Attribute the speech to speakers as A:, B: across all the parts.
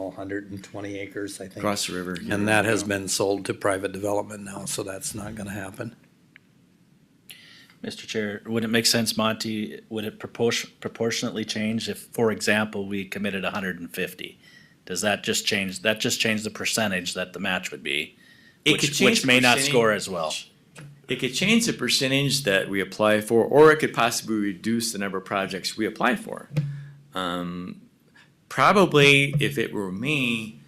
A: all hundred and twenty acres, I think.
B: Across the river.
A: And that has been sold to private development now, so that's not gonna happen.
C: Mr. Chair, would it make sense, Monty, would it proportion, proportionately change if, for example, we committed hundred and fifty? Does that just change, that just change the percentage that the match would be?
B: It
C: which-
B: could change
C: Which
B: the
C: may not
B: percentage.
C: score as well.
B: It could change the percentage that we apply for, or it could possibly reduce the number of projects we apply for. Um, probably, if it were me,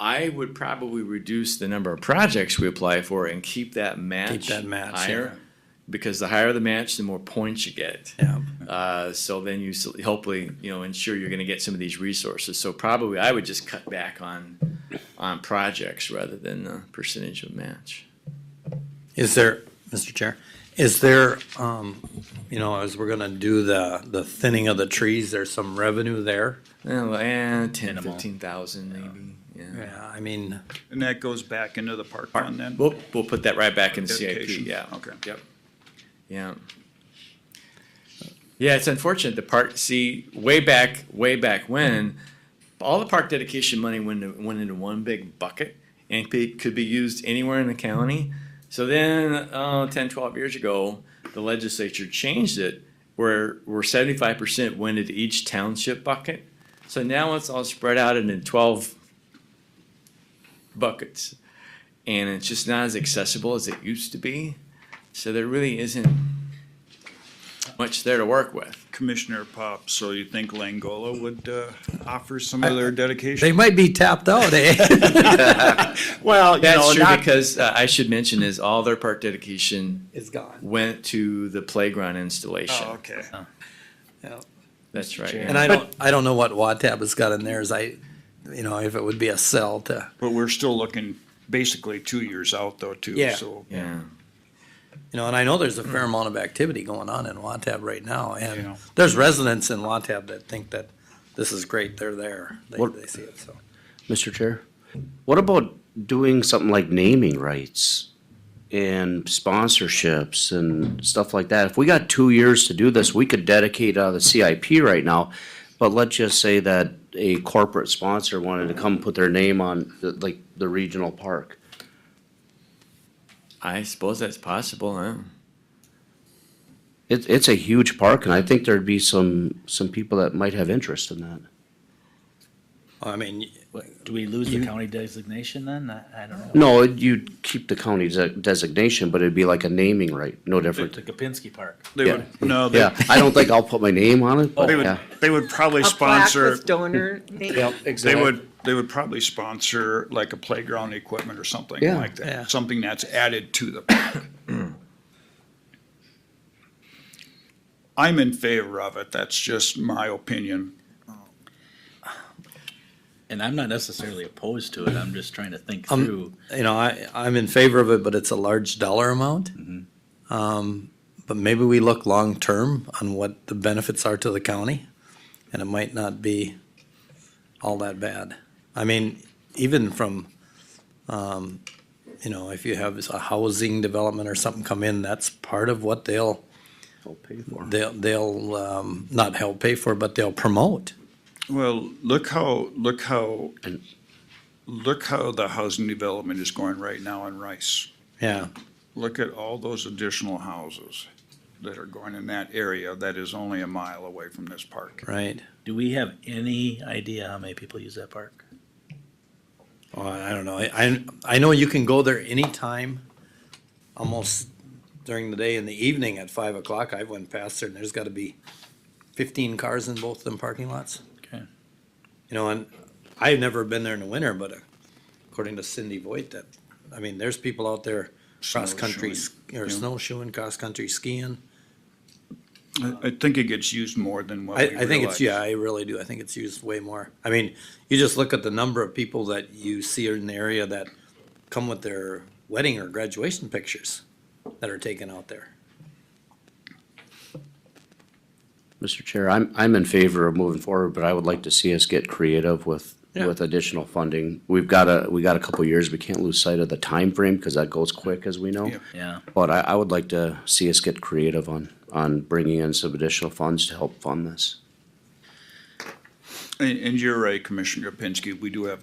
B: I would probably reduce the number of projects we apply for and keep that match,
A: Keep that match,
B: higher. Because the higher the match, the more points you get.
A: Yeah,
B: Uh, so then you s- hopefully you know ensure you're going to get some of these resources. So probably I would just cut back on on projects rather than the percentage of match.
A: Is there, Mr. Chair, is there, um, you know, as we're gonna do the, the thinning of the trees, there's some revenue there?
B: Oh, eh, 10,
C: Minimal.
B: 15,000 maybe. Yeah.
A: Yeah, I mean,
D: And that goes back into the park fund then?
B: We'll we'll put that right back in the CIP.
D: Dedication.
B: Yeah.
D: Okay.
B: Yep. Yeah. Yeah, it's unfortunate. The park. See, way back, way back when, all the park dedication money went went into one big bucket and it could be used anywhere in the county. So then, uh, 10, 12 years ago, the legislature changed it where where 75% went into each township bucket. So now it's all spread out into 12 buckets. And it's just not as accessible as it used to be. So there really isn't much there to work with.
D: Commissioner Pop, so you think Langola would, uh, offer some of their
A: they
D: dedication?
A: might be tapped out, eh?
B: Well, that's
E: know,
B: true
E: not-
B: because uh, I should mention is all their park dedication
A: It's gone.
B: went to the playground installation.
D: Oh, okay.
B: That's right.
A: And I don't, I don't know what Watab has got in theirs. I, you know, if it would be a sell to,
D: But we're still looking basically two years out though too,
A: Yeah.
D: so.
B: yeah.
A: you know, and I know there's a fair amount of activity going on in Watab right now. And
D: Yeah.
A: there's residents in Watab that think that this is great. They're there. They,
E: What-
A: they see it, so.
E: Mr. Chair, what about doing something like naming rights and sponsorships and stuff like that? If we got two years to do this, we could dedicate out of the CIP right now. But let's just say that a corporate sponsor wanted to come put their name on, the- like, the regional park.
B: I suppose that's possible. Huh?
E: It, it's a huge park, and I think there'd be some, some people that might have interest in that.
A: I mean,
C: What, do we lose the county designation then? I, I don't know.
E: No, you'd keep the county de- designation, but it'd be like a naming right, no different.
C: The Kapinski Park.
D: They would,
E: Yeah.
D: no, they,
E: Yeah, I don't think I'll put my name on it, but
D: they would,
E: yeah.
D: they would probably
F: a plaque
D: sponsor,
F: with donor name.
D: they would, they would probably sponsor like a playground equipment or something
E: Yeah.
D: like
A: Yeah.
D: that. Something that's added to the park. I'm in favor of it. That's just my opinion.
C: And I'm not necessarily opposed to it, I'm just trying to think
A: Um,
C: through.
A: you know, I, I'm in favor of it, but it's a large dollar amount. Um, but maybe we look long-term on what the benefits are to the county, and it might not be all that bad. I mean, even from, um, you know, if you have a housing development or something come in, that's part of what they'll,
E: I'll pay for it.
A: they'll, they'll, um, not help pay for, but they'll promote.
D: Well, look how, look how, look how the housing development is going right now in Rice.
A: Yeah,
D: Look at all those additional houses that are going in that area that is only a mile away from this park.
A: right.
C: Do we have any idea how many people use that park?
A: Well, Oh, I don't know. I, I, I know you can go there anytime, almost during the day and the evening at five o'clock. I went past there and there's gotta be fifteen cars in both them parking lots.
C: Okay.
A: You know, and I've never been there in the winter, but according to Cindy Voigt, that, I mean, there's people out there cross-country, sk- or
D: yeah.
A: snowshoeing, cross-country skiing.
D: I, I think it gets used more than what
A: I,
D: we
A: I think it's,
D: realize.
A: yeah, I really do. I think it's used way more. I mean, you just look at the number of people that you see in the area that come with their wedding or graduation pictures that are taken out there.
E: Mr. Chair, I'm, I'm in favor of moving forward, but I would like to see us get creative with,
A: Yeah.
E: with additional funding. We've got a, we got a couple years, we can't lose sight of the time frame because that goes quick, as we know.
D: Yeah.
C: Yeah,
E: But I, I would like to see us get creative on, on bringing in some additional funds to help fund this.
D: And, and you're right, Commissioner Pinsky, we do have